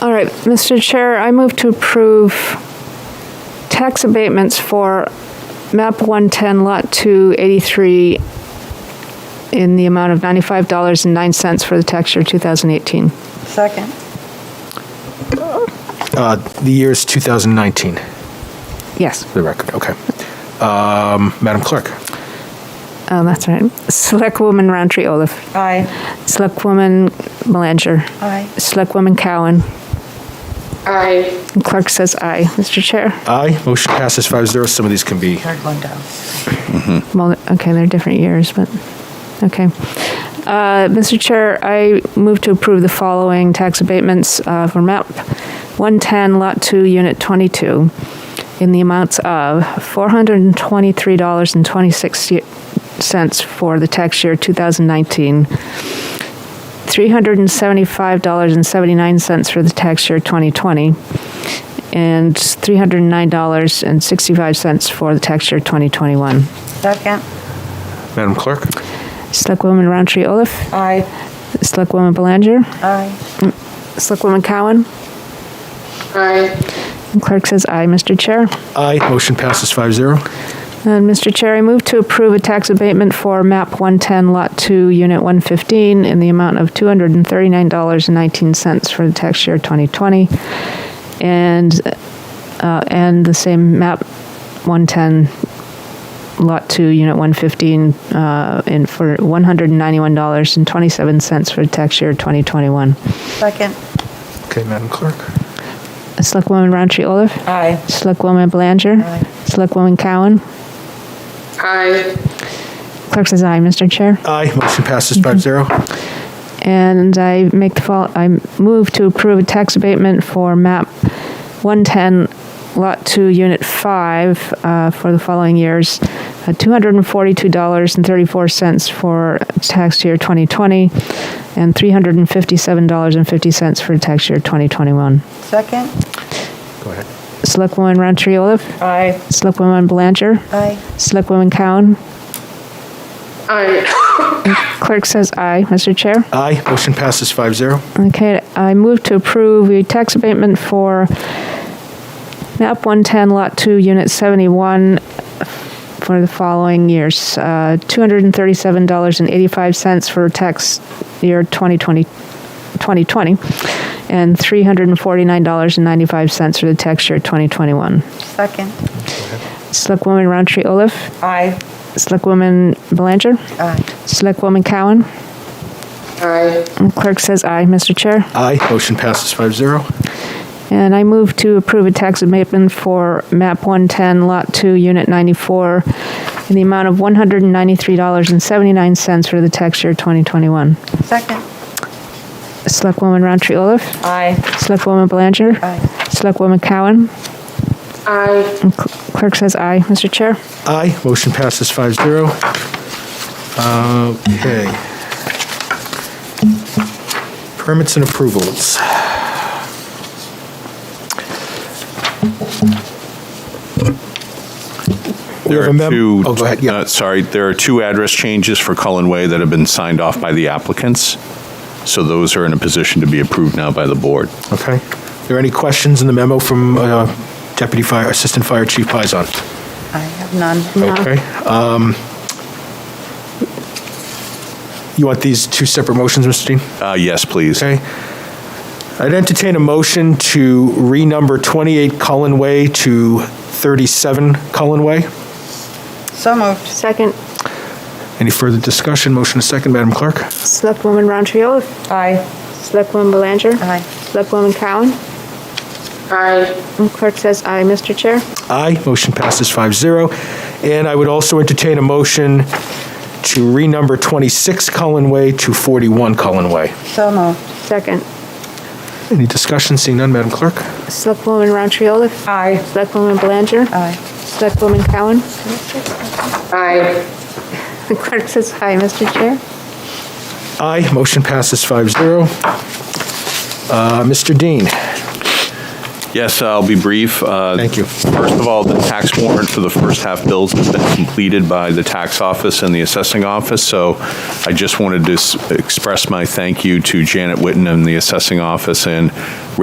All right, Mr. Chair, I move to approve tax abatements for MAP 110, Lot 283, in the amount of $95.09 for the tax year 2018. Second. Uh, The year is 2019, Yes, the record, okay. Um, Madam Clerk? oh, that's right. Selectwoman Roundtree Olaf, Aye. Selectwoman Belanger, Aye. Selectwoman Cowan, Aye. and clerk says aye. Mr. Chair? Aye. Motion passes five zero. Some of these can be, Third one down. Well, okay, they're different years, but, okay. Uh, Mr. Chair, I move to approve the following tax abatements uh, for MAP 110, Lot 2, Unit 22, in the amounts of $423.26 for the tax year 2019, $375.79 for the tax year 2020, and $309.65 for the tax year 2021. Second. Madam Clerk? Selectwoman Roundtree Olaf, Aye. Selectwoman Belanger, Aye. Selectwoman Cowan, Aye. and clerk says aye, Mr. Chair. Aye. Motion passes five zero. And Mr. Chair, I move to approve a tax abatement for MAP 110, Lot 2, Unit 115, in the amount of $239.19 for the tax year 2020, and, uh, and the same MAP 110, Lot 2, Unit 115, uh, in for $191.27 for the tax year 2021. Second. Okay, Madam Clerk? Selectwoman Roundtree Olaf? Aye. Selectwoman Belanger? Aye. Selectwoman Cowan? Aye. Clerk says aye, Mr. Chair. Aye. Motion passes five zero. And I make the fall, I move to approve a tax abatement for map 110, lot 2, unit 5, uh, for the following years. uh, $242.34 for tax year 2020, and $357.50 for tax year 2021. Second. Go ahead. Selectwoman Roundtree Olaf? Aye. Selectwoman Belanger? Aye. Selectwoman Cowan? Aye. Clerk says aye, Mr. Chair. Aye. Motion passes five zero. Okay, I move to approve a tax abatement for map 110, lot 2, unit 71, for the following years. Uh, $237.85 for tax year 2020, 2020, and $349.95 for the tax year 2021. Second. Selectwoman Roundtree Olaf, Aye. Selectwoman Belanger, Aye. Selectwoman Cowan, Aye. and clerk says aye, Mr. Chair. Aye. Motion passes five zero. And I move to approve a tax abatement for MAP 110, Lot 2, Unit 94, in the amount of $193.79 for the tax year 2021. Second. Selectwoman Roundtree Olaf, Aye. Selectwoman Belanger, Aye. Selectwoman Cowan, Aye. and cl- clerk says aye. Mr. Chair? Aye. Motion passes five zero. Okay. Permits and approvals. We There have a are mem- two, Oh, go ahead, yeah. uh, sorry, there are two address changes for Cullen Way that have been signed off by the applicants, so those are in a position to be approved now by the board. Okay. Are there any questions in the memo from uh, Deputy Fire, Assistant Fire Chief Pizon? I have none. Okay. um, You want these two separate motions, Mr. Dean? Uh, Yes, please. Okay. I'd entertain a motion to renumber 28 Cullen Way to 37 Cullen Way. So moved. Second. Any further discussion? Motion a second, Madam Clerk? Selectwoman Roundtree Olaf, Aye. Selectwoman Belanger, Aye. Selectwoman Cowan, Aye. and clerk says aye. Mr. Chair? Aye. Motion passes 5-0. And I would also entertain a motion to renumber 26 Cullen Way to 41 Cullen Way. So moved. Second. Any discussion? Seeing none, Madam Clerk? Selectwoman Roundtree Olaf, Aye. Selectwoman Belanger, Aye. Selectwoman Cowan, Aye. The clerk says hi, Mr. Chair. Aye. Motion passes 5-0. Uh, Mr. Dean? Yes, uh, I'll be brief. Uh, Thank you. First of all, the tax warrant for the first half bills has been completed by the tax office and the assessing office, so I just wanted to s- express my thank you to Janet Witten and the assessing office and